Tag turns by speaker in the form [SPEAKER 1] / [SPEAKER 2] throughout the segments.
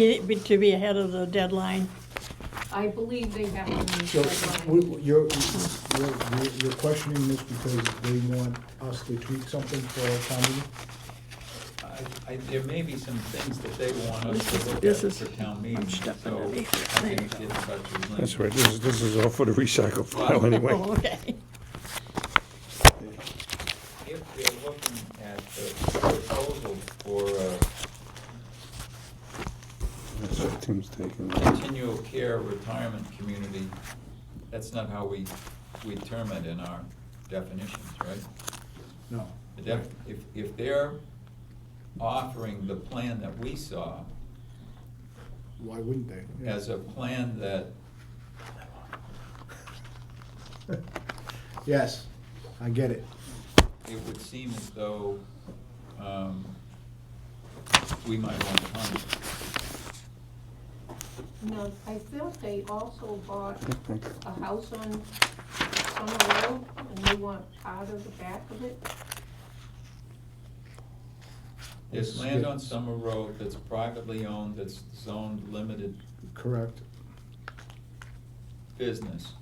[SPEAKER 1] Be- be- To be ahead of the deadline.
[SPEAKER 2] I believe they have to meet
[SPEAKER 3] So,
[SPEAKER 2] the
[SPEAKER 3] we-
[SPEAKER 2] deadline.
[SPEAKER 3] you're, you're, you're- you're questioning this because they want us to tweak something for our town meeting?
[SPEAKER 4] I, I, there may be some things that they want us
[SPEAKER 1] This is-
[SPEAKER 4] to look at
[SPEAKER 1] this is-
[SPEAKER 4] for town
[SPEAKER 1] I'm
[SPEAKER 4] meeting, so
[SPEAKER 1] stepping
[SPEAKER 4] I
[SPEAKER 1] underneath it.
[SPEAKER 4] think it's about to link.
[SPEAKER 5] That's right, this is, this is all for the recycle file
[SPEAKER 1] Oh,
[SPEAKER 5] anyway.
[SPEAKER 1] okay.
[SPEAKER 4] If they're looking at the proposal for a
[SPEAKER 5] That's what Tim's taking.
[SPEAKER 4] continual care retirement community, that's not how we, we term it in our definitions, right?
[SPEAKER 3] No.
[SPEAKER 4] The def- If, if they're offering the plan that we saw
[SPEAKER 3] Why wouldn't they? Yeah.
[SPEAKER 4] as a plan that
[SPEAKER 3] Yes, I get it.
[SPEAKER 4] it would seem as though um, we might want to comment.
[SPEAKER 2] No, I thought they also bought
[SPEAKER 5] Okay.
[SPEAKER 2] a house on Summer Road, and they want part of the back of it.
[SPEAKER 4] There's land on Summer Road that's privately owned, that's zoned limited
[SPEAKER 3] Correct.
[SPEAKER 4] business,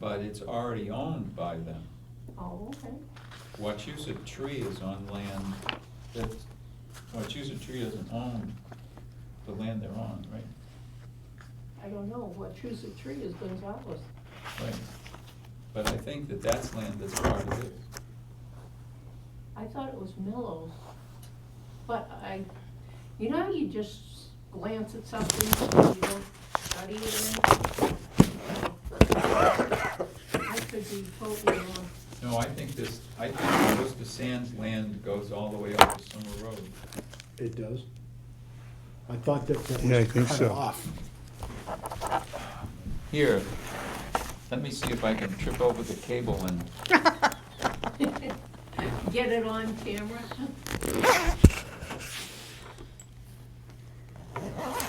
[SPEAKER 4] but it's already owned by them.
[SPEAKER 2] Oh, okay.
[SPEAKER 4] Wachusett Tree is on land that's, Wachusett Tree doesn't own the land they're on, right?
[SPEAKER 2] I don't know, what choose a tree is Gonzales.
[SPEAKER 4] Right. But I think that that's land that's part of it.
[SPEAKER 2] I thought it was Mellows. But I, you know, how you just glance at something, you don't study it or anything. I could be totally wrong.
[SPEAKER 4] No, I think this, I think Worcester Sands land goes all the way up to Summer Road.
[SPEAKER 3] It does. I thought that that
[SPEAKER 5] Yeah, I
[SPEAKER 3] was
[SPEAKER 5] think
[SPEAKER 3] cut
[SPEAKER 5] so.
[SPEAKER 3] off.
[SPEAKER 4] Here, let me see if I can trip over the cable and,
[SPEAKER 2] Get it on camera?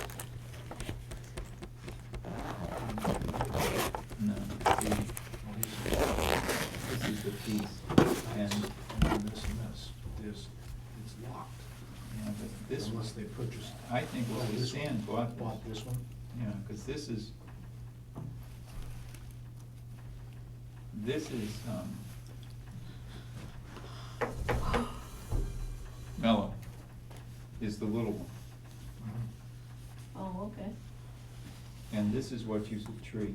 [SPEAKER 4] no, see, this is the piece, and,
[SPEAKER 6] and this and this, there's, it's locked.
[SPEAKER 4] yeah, but this one,
[SPEAKER 6] Unless they purchased.
[SPEAKER 4] I think what was
[SPEAKER 6] This one.
[SPEAKER 4] saying bought this.
[SPEAKER 6] Bought this one?
[SPEAKER 4] Yeah, because this is, this is, um, Mellow is the little one,
[SPEAKER 2] Oh, okay.
[SPEAKER 4] and this is what you should tree.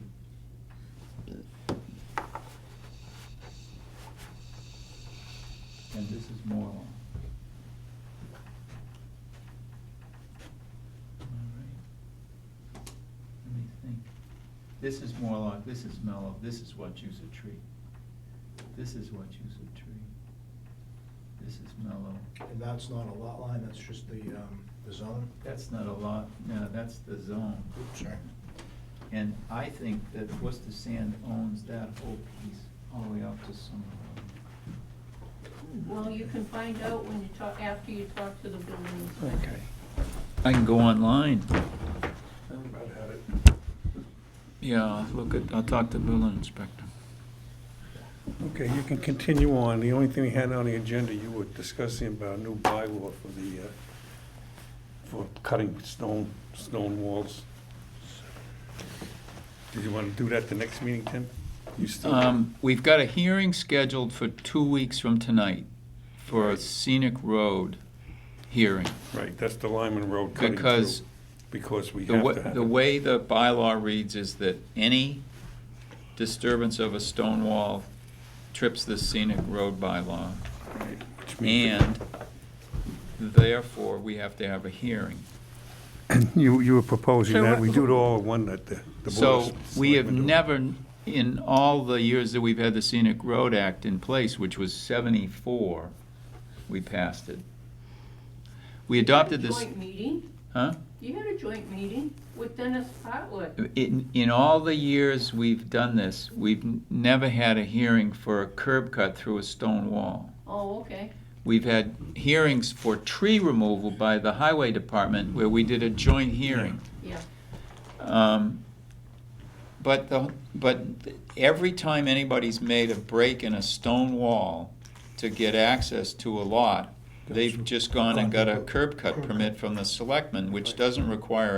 [SPEAKER 4] And this is Moreland. All right. Let me think. This is Morlock, this is Mellow, this is Wachusett Tree. This is Wachusett Tree. This is Mellow.
[SPEAKER 6] And that's not a lot line, that's just the, um, the zone?
[SPEAKER 4] That's not a lot, no, that's the zone.
[SPEAKER 6] Oops, sorry.
[SPEAKER 4] And I think that Worcester Sand owns that whole piece all the way up to Summer
[SPEAKER 2] Well, you can find out when you talk, after you talk to the building
[SPEAKER 4] Road.
[SPEAKER 2] inspector.
[SPEAKER 4] I can go online.
[SPEAKER 6] Brad had it.
[SPEAKER 4] Yeah, I'll look at, I'll talk to building inspector.
[SPEAKER 5] Okay, you can continue on. The only thing we had on the agenda, you were discussing about a new bylaw for the, uh, for cutting stone, stone walls. Did you want to do that the next meeting, Tim? You still?
[SPEAKER 4] Um, we've got a hearing scheduled for two weeks from tonight for a scenic road hearing.
[SPEAKER 5] Right, that's the Lyman Road cutting
[SPEAKER 4] Because
[SPEAKER 5] through, because we
[SPEAKER 4] The
[SPEAKER 5] have
[SPEAKER 4] way,
[SPEAKER 5] to have
[SPEAKER 4] the
[SPEAKER 5] it.
[SPEAKER 4] way the bylaw reads is that any disturbance of a stone wall trips the scenic road bylaw.
[SPEAKER 5] Right, which means-
[SPEAKER 4] And therefore, we have to have a hearing.
[SPEAKER 5] You, you were proposing
[SPEAKER 1] So
[SPEAKER 5] that,
[SPEAKER 1] what-
[SPEAKER 5] we do it all in one, that the. the
[SPEAKER 4] So
[SPEAKER 5] board of
[SPEAKER 4] we have
[SPEAKER 5] selectmen do it.
[SPEAKER 4] never, in all the years that we've had the Scenic Road Act in place, which was seventy-four, we passed it. We adopted this,
[SPEAKER 2] Joint meeting?
[SPEAKER 4] huh?
[SPEAKER 2] You had a joint meeting with Dennis Hartwood.
[SPEAKER 4] In, in all the years we've done this, we've n- never had a hearing for a curb cut through a stone wall.
[SPEAKER 2] Oh, okay.
[SPEAKER 4] We've had hearings for tree removal by the highway department where we did a joint hearing.
[SPEAKER 2] Yeah.
[SPEAKER 4] Um, But the, but every time anybody's made a break in a stone wall to get access to a lot, They've just gone and got a curb cut permit from the selectmen, which doesn't require